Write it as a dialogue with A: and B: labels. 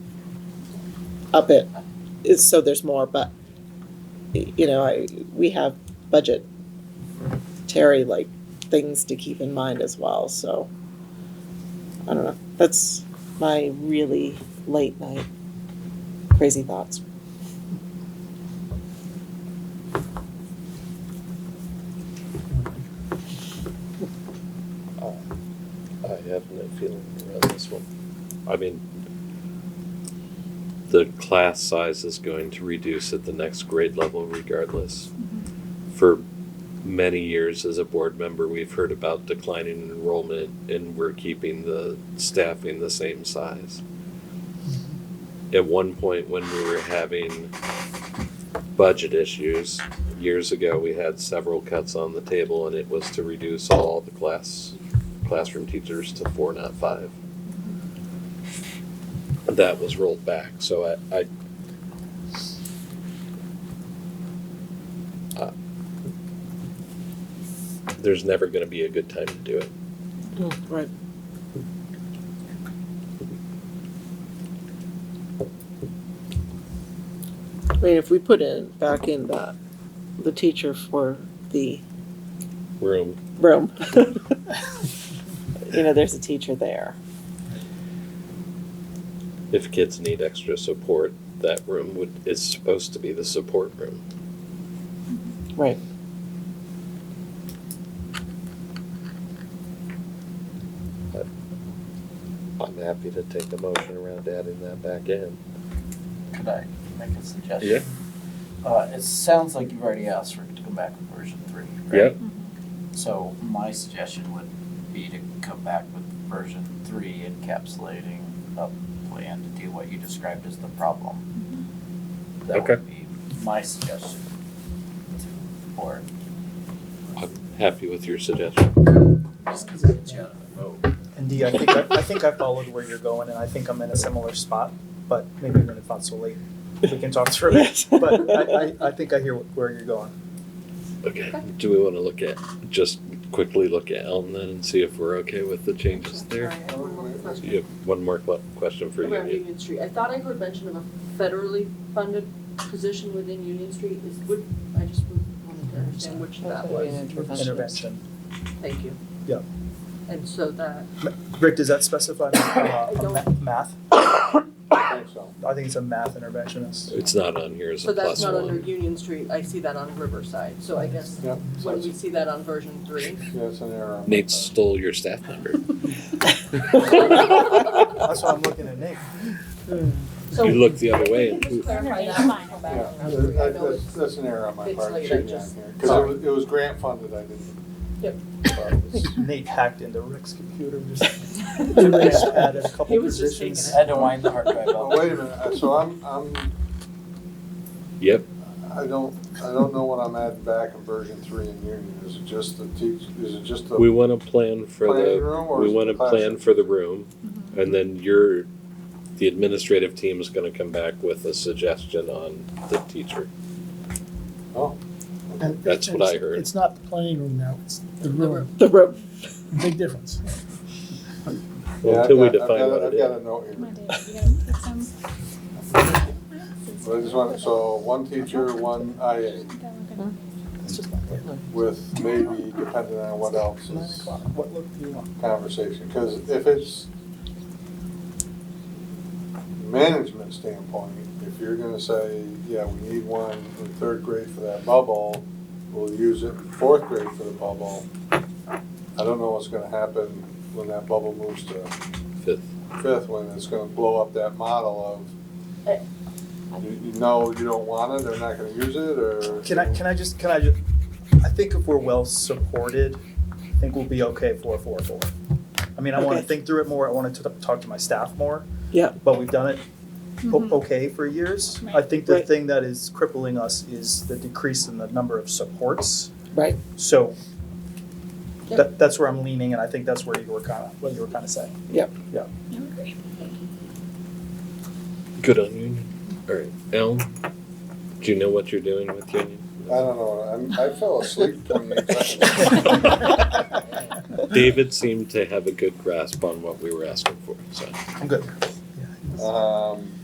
A: up it, it's, so there's more, but, y- you know, I, we have budget, Terry, like, things to keep in mind as well, so. I don't know, that's my really late night crazy thoughts.
B: Oh, I have no feeling around this one. I mean, the class size is going to reduce at the next grade level regardless. For many years as a board member, we've heard about declining enrollment and we're keeping the staffing the same size. At one point when we were having budget issues, years ago, we had several cuts on the table and it was to reduce all the class classroom teachers to four, not five. That was rolled back, so I, I. Uh, There's never gonna be a good time to do it.
A: Right. I mean, if we put in, back in the, the teacher for the
B: Room,
A: room. You know, there's a teacher there.
B: if kids need extra support, that room would, is supposed to be the support room.
A: Right.
B: I'm happy to take the motion around adding that back in.
C: Could I make a suggestion? Uh, it sounds like you've already asked for it to come back with version three, right? So my suggestion would be to come back with version three encapsulating a plan to deal what you described as the problem. That
B: Okay.
C: would be my suggestion to the board,
B: I'm happy with your suggestion.
C: just 'cause it gets you out of the vote.
D: Indeed, I think I, I think I followed where you're going, and I think I'm in a similar spot. But maybe when it's not so late, we can talk through it. But I, I, I think I hear where you're going.
B: Okay, do we wanna look at, just quickly look at Elm then and see if we're okay with the changes there? So you have one more que- question for you.
E: Around
B: Ian.
E: Union Street, I thought I heard mention of a federally funded position within Union Street, is, would, I just wanted to understand which that was,
D: Intervention.
E: thank you.
D: Yeah.
E: And so that,
D: Rick, does that specify uh, a ma- math? I think it's a math interventionist.
B: It's not on here as
E: so
B: a plus
E: that's not under
B: one.
E: Union Street, I see that on Riverside, so I guess
F: Yep, so
E: when
F: it's,
E: we see that on version three.
F: yeah, it's an error. on my
B: Nate
F: part.
B: stole your staff member.
D: That's why I'm looking at Nick.
E: So
B: You looked the other way and
E: Just
B: poof.
E: clarify that.
F: Yeah,
E: I
F: that- that-
E: know
F: that's, that's an error on my
E: it's
F: part, it
E: late, I
F: shouldn't be on
E: just-
F: here, cause it
E: sorry.
F: was, it was grant funded, I didn't.
E: Yep.
F: thought it was-
D: Nate hacked into Rick's computer. Just erased, added a couple
E: He was just taking
D: positions.
C: I had to wind the hard drive
F: Oh,
C: out.
F: wait a minute, uh, so I'm, I'm,
B: Yep,
F: I don't, I don't know what I'm adding back in version three in Union, is it just the teach, is it just the
B: we wanna plan for
F: planning
B: the,
F: room or
B: we
F: is it
B: wanna
F: the
B: plan for the room. And then your, the administrative team is gonna come back with a suggestion on the teacher.
F: Oh, okay.
B: That's what I heard.
G: It's not the planning room now, it's the room,
A: The room.
G: big difference.
F: Yeah, I've
B: Until we
F: got- I've
B: define
F: got-
B: what it
F: I've got
B: is.
F: a note here.
H: Come on, David, you gotta put some.
F: But I just want, so one teacher, one IA
H: That we're gonna-
D: It's just not late.
F: with maybe depending on what else
D: Nine
F: is
D: o'clock. What look do you want?
F: conversation, because if it's management standpoint, if you're gonna say, yeah, we need one in third grade for that bubble, we'll use it in fourth grade for the bubble, I don't know what's gonna happen when that bubble moves to
B: Fifth.
F: fifth, when it's gonna blow up that model
E: Eh.
F: of, you, you know, you don't want it, they're not gonna use it, or.
D: Can I, can I just, can I just, I think if we're well supported, I think we'll be okay four, four, four. I mean, I wanna
A: Okay.
D: think through it more, I wanna t- talk to my staff more.
A: Yeah.
D: But we've done it o-
H: Mhm.
D: okay for years. I
H: Right.
D: think the
A: Mm-hmm. Right.
D: thing that is crippling us is the decrease in the number of supports.
A: Right.
D: So
E: Yeah.
D: that, that's where I'm leaning and I think that's where you were kinda, what you were kinda saying.
H: No, agree.
B: Good on Union. Alright, Elm, do you know what you're doing with Union?
F: I don't know, I'm, I fell asleep twenty-eight seconds.
B: David seemed to have a good grasp on what we were asking for, so.
D: I'm good.
F: Um,